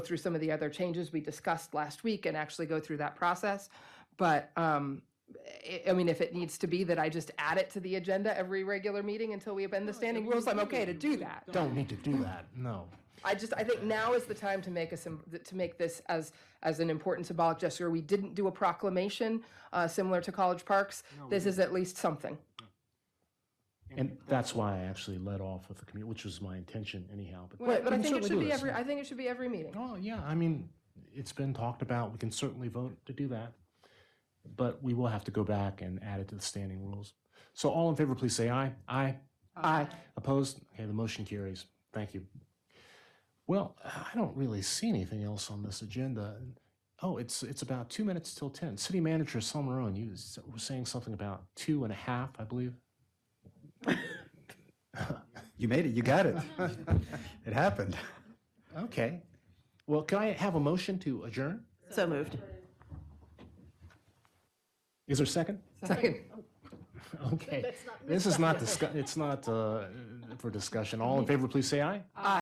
through some of the other changes we discussed last week and actually go through that process. But, um, I, I mean, if it needs to be that I just add it to the agenda every regular meeting until we amend the standing rules, I'm okay to do that. Don't need to do that, no. I just, I think now is the time to make a, sym- to make this as, as an important symbolic gesture. We didn't do a proclamation, uh, similar to College Parks. This is at least something. And that's why I actually led off with the commu, which was my intention anyhow, but. But, but I think it we can certainly should do be this. every, I think it should be every meeting. Oh, yeah, I mean, it's been talked about, we can certainly vote to do that. But we will have to go back and add it to the standing rules. So all in favor, please say aye. Aye. Aye. Opposed? Okay, the motion carries. Thank you. Well, I don't really see anything else on this agenda. Oh, it's, it's about two minutes till 10. City Manager Salmarone, you s- were saying something about two and a half, I believe. You made it. You got it. it happened. Okay. Well, can I have a motion to adjourn? So moved. Is there a second? Second. Okay. This is not, discuss- it's not uh, for discussion. All in favor, please say aye.